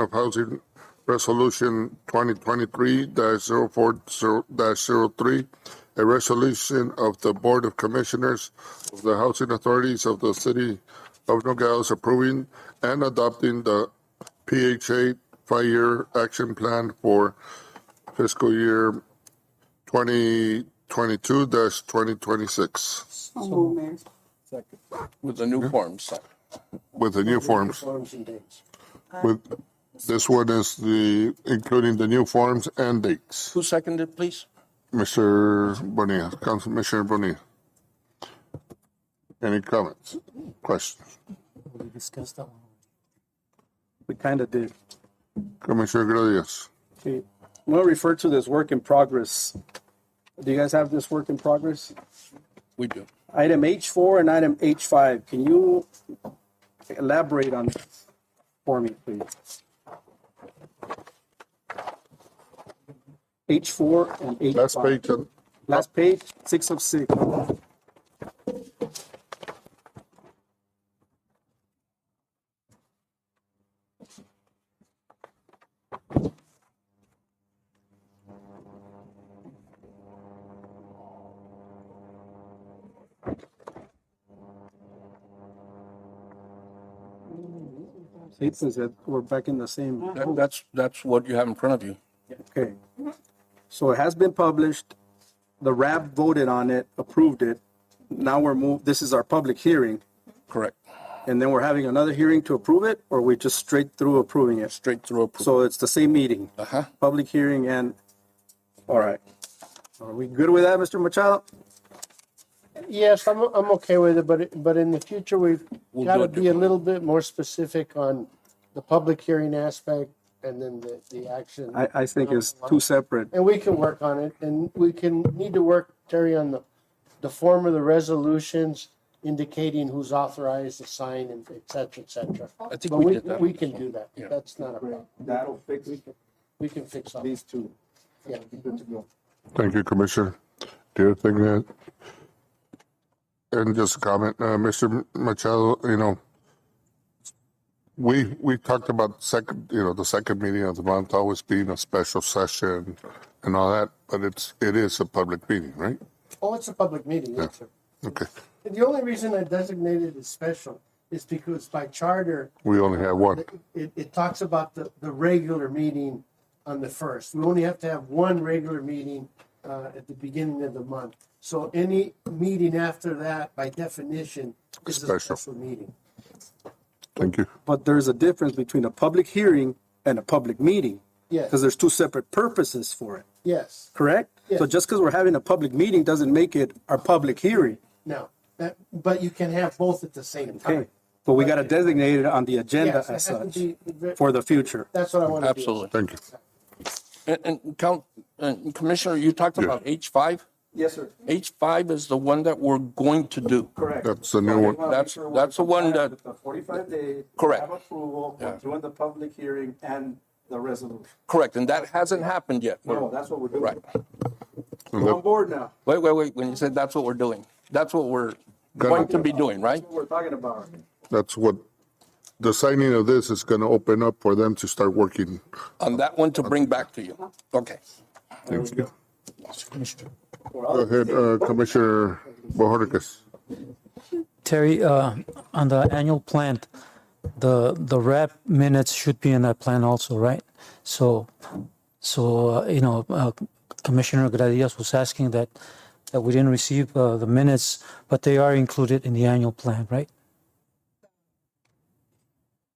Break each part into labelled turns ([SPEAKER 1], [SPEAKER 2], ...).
[SPEAKER 1] of Housing Resolution 2023-040-03, a resolution of the Board of Commissioners of the Housing Authorities of the City of Nogales approving and adopting the PHA five-year action plan for fiscal year 2022-2026
[SPEAKER 2] So moved, Mayor.
[SPEAKER 3] Second.
[SPEAKER 4] with the new forms.
[SPEAKER 1] with the new forms.
[SPEAKER 3] Forms and dates.
[SPEAKER 1] With, this one is the, including the new forms and dates.
[SPEAKER 4] Who seconded, please?
[SPEAKER 1] Mr. Bonilla, Commissioner Bonilla. Any comments, questions?
[SPEAKER 3] Oh, We discussed that one. We kind of did.
[SPEAKER 1] Commissioner Gradius,
[SPEAKER 3] Okay, I'm gonna refer to this work in progress. Do you guys have this work in progress?
[SPEAKER 4] We do.
[SPEAKER 3] Item H four and item H five, can you elaborate on this for me, please? H four and H five.
[SPEAKER 1] last page, of-
[SPEAKER 3] Last page, six of six. Six is that we're back in the same.
[SPEAKER 4] That- That's, that's what you have in front of you.
[SPEAKER 3] Okay. So it has been published. The RAB voted on it, approved it. Now we're moved, this is our public hearing,
[SPEAKER 4] Correct.
[SPEAKER 3] and then we're having another hearing to approve it, or we just straight through approving it?
[SPEAKER 4] Straight through approval.
[SPEAKER 3] So it's the same meeting,
[SPEAKER 4] Uh-huh.
[SPEAKER 3] public hearing and, all right. Are we good with that, Mr. Machado?
[SPEAKER 5] Yes, I'm, I'm okay with it, but, it- but in the future, we've
[SPEAKER 4] We'll
[SPEAKER 5] got
[SPEAKER 4] do
[SPEAKER 5] to
[SPEAKER 4] it
[SPEAKER 5] be a little bit more specific on the public hearing aspect and then the, the action.
[SPEAKER 3] I, I think it's two separate.
[SPEAKER 5] And we can work on it and we can need to work, Terry, on the, the form of the resolutions indicating who's authorized to sign and et cetera, et cetera.
[SPEAKER 4] I think
[SPEAKER 5] But
[SPEAKER 4] we
[SPEAKER 5] we,
[SPEAKER 4] did that.
[SPEAKER 5] we can do that.
[SPEAKER 4] Yeah.
[SPEAKER 5] That's not a problem.
[SPEAKER 3] That'll fix
[SPEAKER 5] We can fix all,
[SPEAKER 3] these two.
[SPEAKER 5] yeah.
[SPEAKER 1] thank you, Commissioner. Do you think that? And just a comment, uh, Mr. Machado, you know, we, we talked about second, you know, the second meeting of the month always being a special session and all that, but it's, it is a public meeting, right?
[SPEAKER 5] Oh, it's a public meeting, yes, sir.
[SPEAKER 1] Okay,
[SPEAKER 5] And the only reason I designated it as special is because by charter,
[SPEAKER 1] we only have one.
[SPEAKER 5] it, it talks about the, the regular meeting on the first. We only have to have one regular meeting uh, at the beginning of the month. So any meeting after that, by definition, is a
[SPEAKER 1] Special.
[SPEAKER 5] special meeting.
[SPEAKER 1] Thank you.
[SPEAKER 3] But there's a difference between a public hearing and a public meeting. Because
[SPEAKER 5] Yes,
[SPEAKER 3] there's two separate purposes for it.
[SPEAKER 5] yes.
[SPEAKER 3] correct? So
[SPEAKER 5] Yes.
[SPEAKER 3] just because we're having a public meeting doesn't make it our public hearing,
[SPEAKER 5] No, that, but you can have both at the same time.
[SPEAKER 3] okay? But we gotta designate it on the agenda
[SPEAKER 5] Yes, it
[SPEAKER 3] as
[SPEAKER 5] has to
[SPEAKER 3] such
[SPEAKER 5] be-
[SPEAKER 3] for the future.
[SPEAKER 5] That's what I want to do.
[SPEAKER 4] Absolutely.
[SPEAKER 1] Thank you.
[SPEAKER 4] And, and count, and Commissioner, you talked about H five?
[SPEAKER 3] Yes, sir,
[SPEAKER 4] H five is the one that we're going to do.
[SPEAKER 3] correct.
[SPEAKER 1] That's the new one.
[SPEAKER 4] That's- that's the one that-
[SPEAKER 3] The forty-five day.
[SPEAKER 4] Correct.
[SPEAKER 3] Have approval, we're doing the public hearing and the resolution.
[SPEAKER 4] Correct, and that hasn't happened yet.
[SPEAKER 3] No, that's what we're doing.
[SPEAKER 4] Right.
[SPEAKER 3] We're on board now,
[SPEAKER 4] Wait, wait, wait, when you said that's what we're doing, that's what we're going to be doing, right?
[SPEAKER 3] what we're talking about.
[SPEAKER 1] That's what, the signing of this is going to open up for them to start working.
[SPEAKER 4] On that one to bring back to you. Okay.
[SPEAKER 1] Thank you. Go ahead, uh, Commissioner Bohoricas.
[SPEAKER 6] Terry, uh, on the annual plan, the, the rep minutes should be in that plan also, right? So, so, uh, you know, uh, Commissioner Gradias was asking that, that we didn't receive, uh, the minutes, but they are included in the annual plan, right?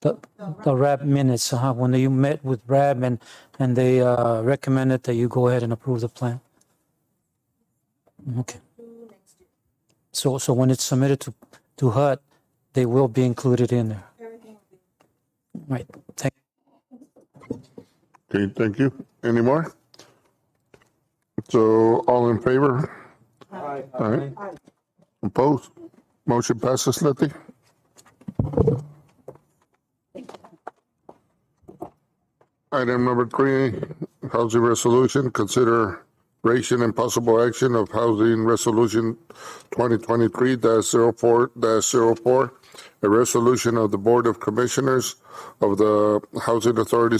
[SPEAKER 6] The, the rep minutes, uh, when you met with rep and, and they, uh, recommended that you go ahead and approve the plan. Okay. So, so when it's submitted to, to HUD, they will be included in there. Right, thank
[SPEAKER 1] Okay, thank you. Any more? So all in favor? Aye. Opposed? Motion passes, Letty? Item number three, housing resolution, consider consideration and possible action of Housing Resolution 2023-04-04, a resolution of the Board of Commissioners of the Housing Authority